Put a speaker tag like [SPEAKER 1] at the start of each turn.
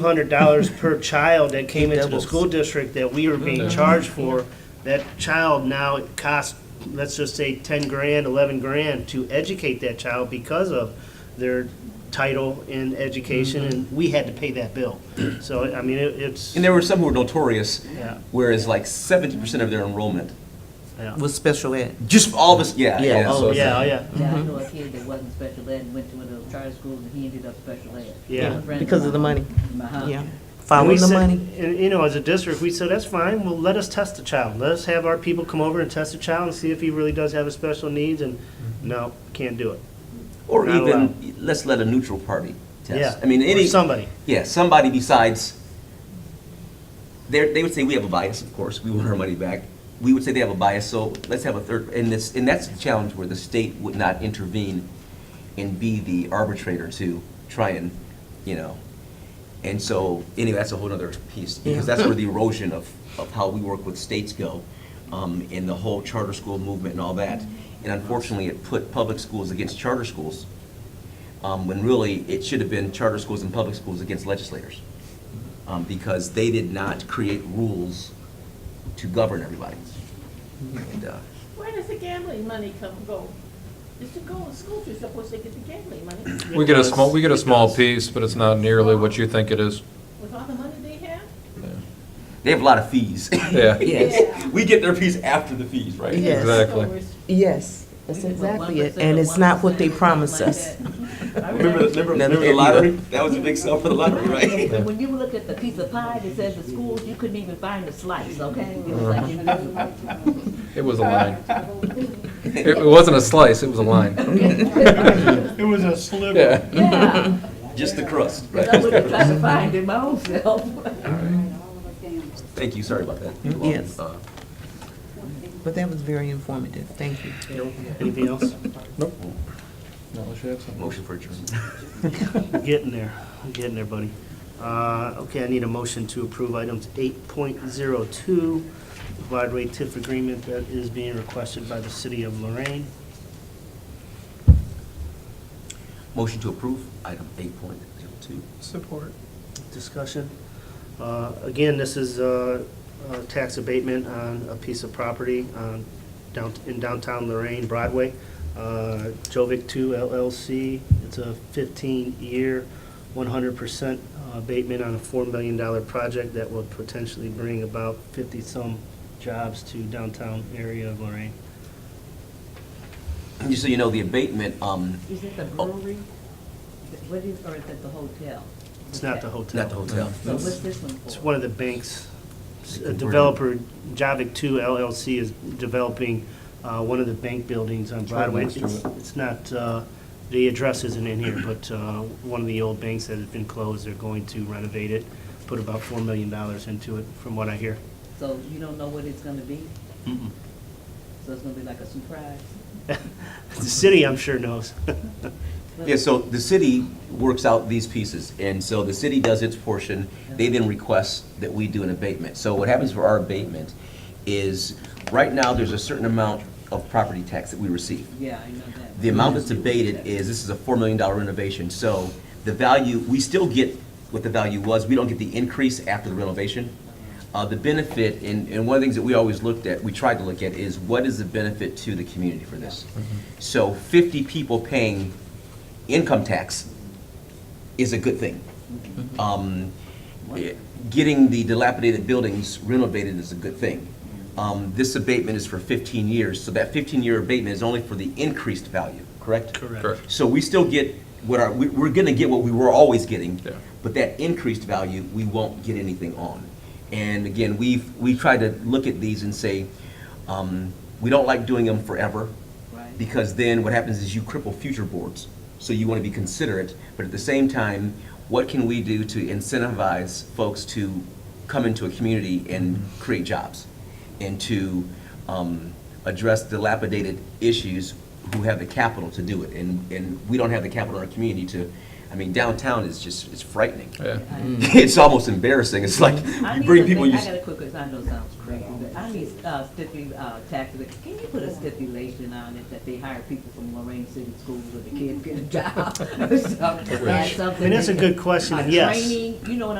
[SPEAKER 1] hundred dollars per child that came into
[SPEAKER 2] He
[SPEAKER 1] the
[SPEAKER 2] doubles.
[SPEAKER 1] school district that we were being charged for, that child now it costs, let's just say ten grand, eleven grand to educate that child because of their title in education, and we had to pay that bill. So, I mean, it- it's,
[SPEAKER 3] Mm-hmm. And there were some who were notorious,
[SPEAKER 1] Yeah.
[SPEAKER 3] whereas like seventy percent of their enrollment,
[SPEAKER 1] yeah,
[SPEAKER 2] with special ed.
[SPEAKER 3] just all of us, yeah,
[SPEAKER 2] Yeah.
[SPEAKER 3] yeah.
[SPEAKER 2] Oh,
[SPEAKER 3] so
[SPEAKER 1] oh,
[SPEAKER 3] it's
[SPEAKER 1] yeah, oh,
[SPEAKER 3] like-
[SPEAKER 1] yeah,
[SPEAKER 4] Yeah, I know a kid that wasn't special ed and went to one of those charter schools and he ended up special ed.
[SPEAKER 1] yeah.
[SPEAKER 2] Because of the money, yeah.
[SPEAKER 1] And we
[SPEAKER 2] Following the
[SPEAKER 1] said-
[SPEAKER 2] money.
[SPEAKER 1] And, you know, as a district, we said, that's fine, well, let us test the child. Let us have our people come over and test the child and see if he really does have a special needs, and
[SPEAKER 3] Mm-hmm.
[SPEAKER 1] no, can't do it.
[SPEAKER 3] Or
[SPEAKER 1] Not
[SPEAKER 3] even, let's let a neutral party
[SPEAKER 1] Yeah.
[SPEAKER 3] test. I mean,
[SPEAKER 1] Or
[SPEAKER 3] any,
[SPEAKER 1] Somebody.
[SPEAKER 3] yeah, somebody besides, they they would say, we have a bias, of course, we want our money back. We would say they have a bias, so let's have a third, and this, and that's the challenge where the state would not intervene and be the arbitrator to try and, you know. And so, anyway, that's a whole other piece, because
[SPEAKER 2] Yeah.
[SPEAKER 3] that's where the erosion of, of how we work with states go, um, and the whole charter school movement and all that. And unfortunately, it put public schools against charter schools, um, when really, it should have been charter schools and public schools against legislators, um, because they did not create rules to govern everybody. And, uh,
[SPEAKER 5] Where does the gambling money come go? It's to go to schools, you're supposed to get the gambling money.
[SPEAKER 6] We get a
[SPEAKER 1] does.
[SPEAKER 6] small, we get
[SPEAKER 1] It
[SPEAKER 6] a small
[SPEAKER 1] does.
[SPEAKER 6] piece, but it's not nearly what you think it is.
[SPEAKER 5] With all the money they have?
[SPEAKER 3] They have a lot of fees.
[SPEAKER 6] Yeah.
[SPEAKER 5] Yes.
[SPEAKER 3] We get their fees after the fees, right?
[SPEAKER 2] Yes.
[SPEAKER 6] Exactly.
[SPEAKER 5] So it's-
[SPEAKER 2] Yes, that's
[SPEAKER 4] Well,
[SPEAKER 2] exactly it,
[SPEAKER 4] 1%
[SPEAKER 2] and
[SPEAKER 4] or
[SPEAKER 2] it's not what they
[SPEAKER 4] 1%,
[SPEAKER 2] promised
[SPEAKER 4] something
[SPEAKER 2] us.
[SPEAKER 4] like that.
[SPEAKER 3] Remember, remember,
[SPEAKER 2] None
[SPEAKER 3] remember
[SPEAKER 2] of
[SPEAKER 3] the
[SPEAKER 2] it.
[SPEAKER 3] lottery? That was a big sell for the lottery, right?
[SPEAKER 4] But When you look at the piece of pie that says the schools, you couldn't even find a slice, okay? It was like invisible.
[SPEAKER 1] Uh-huh.
[SPEAKER 6] It was a line. It it wasn't a slice, it was a line.
[SPEAKER 1] It was a sliver.
[SPEAKER 6] Yeah.
[SPEAKER 4] Yeah,
[SPEAKER 3] Just the crust, right?
[SPEAKER 4] 'cause I would have tried to find it my own self.
[SPEAKER 3] Thank you, sorry about that. You're welcome.
[SPEAKER 2] Yes.
[SPEAKER 3] Uh,
[SPEAKER 2] But that was very informative, thank you.
[SPEAKER 1] Anything else?
[SPEAKER 3] Motion for adjournment.
[SPEAKER 1] Getting there, I'm getting there, buddy. Uh, Okay, I need a motion to approve items 8.02, wide rate TIF agreement that is being requested by the city of Lorraine.
[SPEAKER 3] Motion to approve, item eight point zero two.
[SPEAKER 2] Support.
[SPEAKER 1] Discussion. Uh, Again, this is uh, a tax abatement on a piece of property on down- in downtown Lorraine, Broadway. Uh, Jovic 2 LLC, it's a 15-year, 100% abatement on a $4 million project that will potentially bring about 50-some jobs to downtown area of Lorraine.
[SPEAKER 3] Just so you know, the abatement, um,
[SPEAKER 4] Is it the
[SPEAKER 2] Oh.
[SPEAKER 4] brewery? What is, or is it the hotel?
[SPEAKER 1] It's not the hotel.
[SPEAKER 3] not the hotel.
[SPEAKER 4] So what's this one for?
[SPEAKER 1] It's one of the banks,
[SPEAKER 3] They
[SPEAKER 1] a
[SPEAKER 3] converted.
[SPEAKER 1] developer, Jovic Two LLC is developing uh, one of the bank buildings on
[SPEAKER 6] right
[SPEAKER 1] Broadway.
[SPEAKER 6] next to
[SPEAKER 1] It's it's not, uh, the address isn't in here, but uh, one of the old banks that has been closed, they're going to renovate it, put about $4 million into it, from what I hear.
[SPEAKER 4] So you don't know what it's gonna be? So it's gonna be like a surprise?
[SPEAKER 1] The city, I'm sure, knows.
[SPEAKER 3] Yeah, so the city works out these pieces, and so the city does its portion, they then request that we do an abatement. So what happens for our abatement is, right now, there's a certain amount of property tax that we receive.
[SPEAKER 4] Yeah, I know that.
[SPEAKER 3] The amount that's abated is, this is a $4 million renovation, so the value, we still get what the value was, we don't get the increase after the renovation. Uh, The benefit, and, and one of the things that we always looked at, we tried to look at, is what is the benefit to the community for this? So 50 people paying income tax is a good thing.
[SPEAKER 4] Mm-hmm.
[SPEAKER 3] Um, eh, Getting the dilapidated buildings renovated is a good thing. Um, This abatement is for 15 years, so that 15-year abatement is only for the increased value, correct?
[SPEAKER 6] Correct.
[SPEAKER 3] So we still get what our, we- we're gonna get what we were always getting.
[SPEAKER 6] Yeah.
[SPEAKER 3] But that increased value, we won't get anything on. And again, we've, we tried to look at these and say, um, we don't like doing them forever.
[SPEAKER 4] Right.
[SPEAKER 3] Because then what happens is you cripple future boards. So you want to be considerate, but at the same time, what can we do to incentivize folks to come into a community and
[SPEAKER 4] Mm-hmm.
[SPEAKER 3] create jobs? And to um, address dilapidated issues who have the capital to do it? And, and we don't have the capital in our community to, I mean, downtown is just, it's frightening.
[SPEAKER 6] Yeah.
[SPEAKER 3] It's almost embarrassing. It's like,
[SPEAKER 4] I
[SPEAKER 3] you
[SPEAKER 4] need
[SPEAKER 3] bring
[SPEAKER 4] to
[SPEAKER 3] people,
[SPEAKER 4] think-
[SPEAKER 3] you,
[SPEAKER 4] I gotta quick, because I know it sounds crazy, but I need, uh, stipu, uh, taxes, can you put a stipulation on it that they hire people from Lorraine City Schools where the kids get a job or something? Add
[SPEAKER 1] I mean, that's a
[SPEAKER 4] something.
[SPEAKER 1] good question,
[SPEAKER 4] Like
[SPEAKER 1] yes.
[SPEAKER 4] Training, you know what